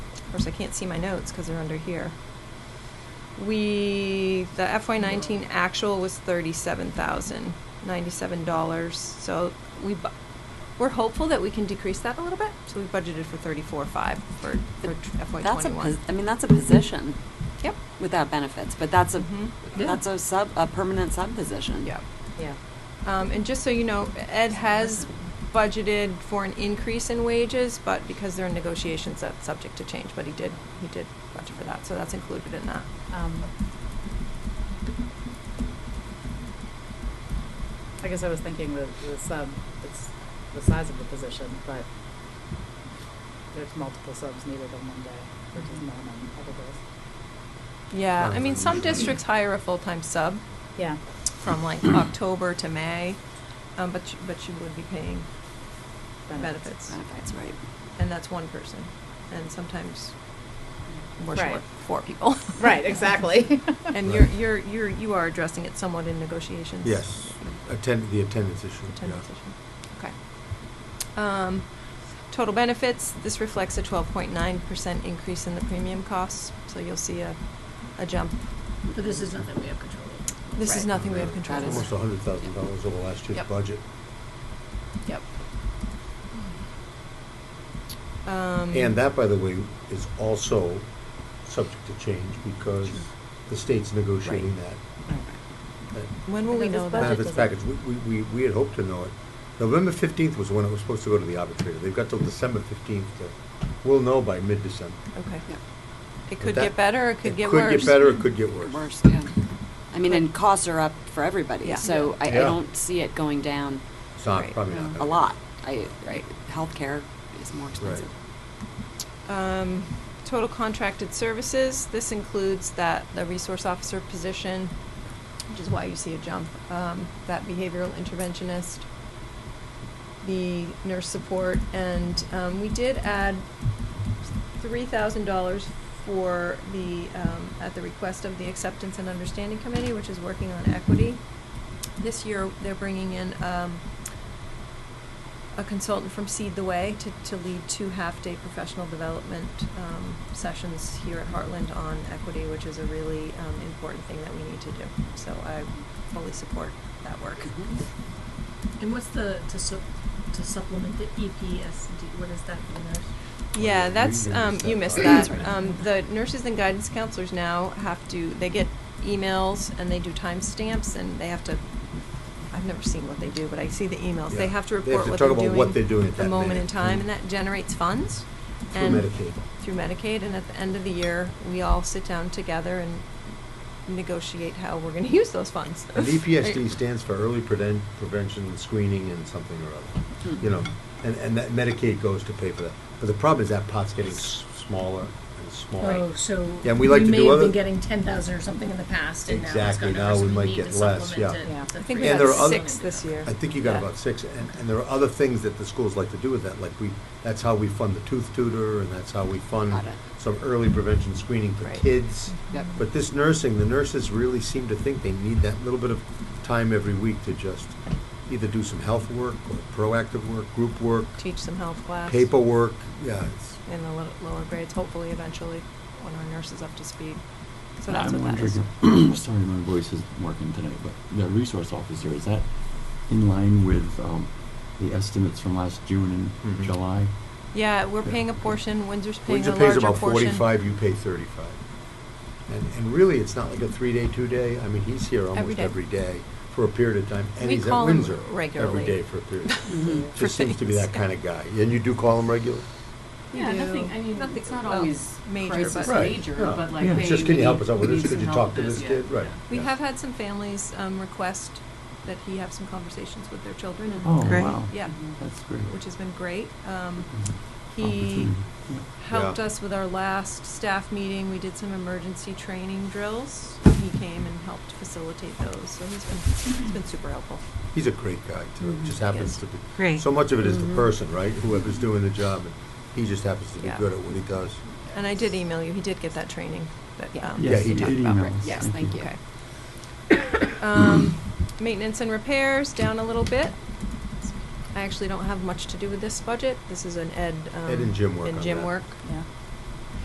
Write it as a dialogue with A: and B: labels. A: Of course, I can't see my notes because they're under here. We, the FY nineteen actual was thirty-seven thousand, ninety-seven dollars, so we bu- we're hopeful that we can decrease that a little bit, so we budgeted for thirty-four five for, for FY twenty-one.
B: That's a pos- I mean, that's a position
A: Yep.
B: without benefits, but that's a,
A: Mhm.
C: Yeah.
B: that's a sub, a permanent sub position.
A: Yep.
C: Yeah.
A: Um, and just so you know, Ed has budgeted for an increase in wages, but because they're in negotiations, that's subject to change, but he did, he did budget for that, so that's included in that.
C: Um, I guess I was thinking the, the sub, it's the size of the position, but there's multiple subs needed on one day, which is not on other days.
A: Yeah, I mean, some districts hire a full-time sub
C: Yeah.
A: from like October to May, um, but, you- but you would be paying benefits.
B: Benefits, right.
A: And that's one person, and sometimes we're
C: Right.
A: short four people.
C: Right, exactly.
A: And you're,
D: Right.
A: you're, you're, you are addressing it somewhat in negotiations.
D: Yes, attend, the attendance issue.
A: Attendance
D: yeah.
A: issue. Okay. Um, total benefits, this reflects a twelve point nine percent increase in the premium costs, so you'll see a, a jump.
E: But this is nothing we have control over.
A: This is
C: Right.
A: nothing we have control
B: That is-
A: over.
D: Almost a hundred thousand dollars over last year's
A: Yep.
D: budget.
A: Yep. Um.
D: And that, by the way, is also subject to change because
E: Sure.
D: the state's negotiating that, that
A: When will we
C: Because
A: know that?
C: this budget
D: benefits
C: doesn't-
D: package. We, we- we, we had hoped to know it. November fifteenth was when it was supposed to go to the arbitrator. They've got till December fifteenth to, we'll know by mid-December.
A: Okay.
B: Yeah.
A: It
D: But
A: could
D: that-
A: get better, it could get worse.
D: It could get better, it could get worse.
B: Worse, yeah. I mean, and costs are up for everybody,
A: Yeah.
B: so I, I
D: Yeah.
B: don't see it going down
D: It's not,
A: Right.
D: probably not.
A: No.
D: gonna
B: a
D: be.
B: lot. I, right, healthcare is more expensive.
A: Um, total contracted services, this includes that, the resource officer position, which is why you see a jump, um, that behavioral interventionist, the nurse support, and, um, we did add three thousand dollars for the, um, at the request of the Acceptance and Understanding Committee, which is working on equity. This year, they're bringing in, um, a consultant from Seed the Way to, to lead two half-day professional development um, sessions here at Heartland on equity, which is a really um, important thing that we need to do. So I fully support that work.
B: Mhm.
E: Mm-hmm. And what's the, to su- to supplement the E EPSD, what is that for the nurse?
A: Yeah,
D: Well,
A: that's,
D: you
A: um,
D: missed
A: you
D: that
A: missed
D: part.
A: that.
B: That's right.
A: Um, the nurses and guidance counselors now have to, they get emails and they do timestamps and they have to, I've never seen what they do, but I see the emails. They
D: Yeah.
A: have to
D: They have
A: report
D: to
A: what
D: talk
A: they're
D: about
A: doing.
D: what they're doing at
A: The
D: that
A: moment
D: minute.
A: in time,
D: Mm.
A: and that generates funds.
D: Through
A: and
D: Medicaid.
A: Through Medicaid, and at the end of the year, we all sit down together and negotiate how we're gonna use those funds.
D: And E EPSD stands for early prevent, prevention, screening, and something or other,
A: Hmm.
D: you know, and, and that Medicaid goes to pay for that. But the problem is that pot's getting s- smaller and smaller.
E: Oh, so
D: Yeah, and we like to do
E: may have
D: other-
E: been getting ten thousand or something in the past, and now it's
D: Exactly,
E: gone
D: now
E: over, so
D: we
E: we
D: might
E: need
D: get
E: to
D: less,
E: supplement
D: yeah.
E: it
C: Yeah.
E: to
A: I think we
E: create
D: And
A: got
D: there
E: a
D: are other-
A: six this year.
D: I think you got
A: Yeah.
D: about six, and, and there are other things that the schools like to do with that, like we, that's how we fund the tooth tutor, and that's how we fund
B: Got it.
D: some early prevention screening for
A: Right.
D: kids.
B: Yep.
D: But this nursing, the nurses really seem to think they need that little bit of time every week to just either do some health work, or proactive work, group work,
A: Teach some health class.
D: paperwork, yeah, it's,
A: in the lo- lower grades, hopefully eventually, when our nurse is up to speed. So that's
F: I'm
A: what that
F: wondering.
A: is.
F: if- Sorry, my voice isn't working tonight, but the resource officer, is that in line with um, the estimates from last June and
D: Mhm.
F: July?
A: Yeah, we're paying a portion, Windsor's paying a
D: Windsor pays
A: larger portion.
D: about forty-five, you pay thirty-five. And, and really, it's not like a three-day, two-day, I mean, he's here almost
A: day.
D: every day for a period of time, and
A: We
D: he's at
A: call him
D: Windsor
A: regularly.
D: every day for a period. of time.
B: Mhm.
A: For
D: Just seems to be
A: things.
D: that kind of guy, and you do call him regularly?
A: We
G: Yeah,
A: do.
G: nothing, I mean,
A: Nothing-
G: it's not
A: well,
G: always
A: major,
G: crisis
A: but- Right,
G: major,
D: yeah.
G: but like,
F: Yeah.
G: hey,
F: It's
D: just, can you help us out with
G: we
D: this?
G: need
D: Could you
G: some
D: talk
G: help
D: to
G: with
D: this
G: Yeah.
D: kid? Right.
A: We
D: Yeah.
A: have had some families um, request that he have some conversations with their children and.
F: Oh,
A: and-
F: wow.
A: Yeah,
F: That's great.
A: which has been great. Um,
F: Mhm.
A: He
F: Opportunity. Yeah.
A: helped
D: Yeah.
A: us with our last staff meeting. We did some emergency training drills. He came and helped facilitate those, so he's been, he's been super helpful.
D: He's a great guy, too,
A: Mhm.
D: just happens
A: Yes. Mm-hmm.
D: to be.
G: Great.
D: So much of it is the
B: Mhm.
D: person, right, whoever's doing the job, and he just happens to be
A: Yeah.
D: good at what he does.
A: And I did email you, he did get that training that,
B: Yeah.
A: um.
F: Yes,
D: he
F: you
D: did.
F: did
B: Right,
F: email us.
B: yes, thank you.
A: Okay. Um, Maintenance and repairs, down a little bit. I actually don't have much to do with this budget. This is an Ed. um,
D: Ed and Jim work on
A: Jim
D: that.
A: work.
C: Yeah.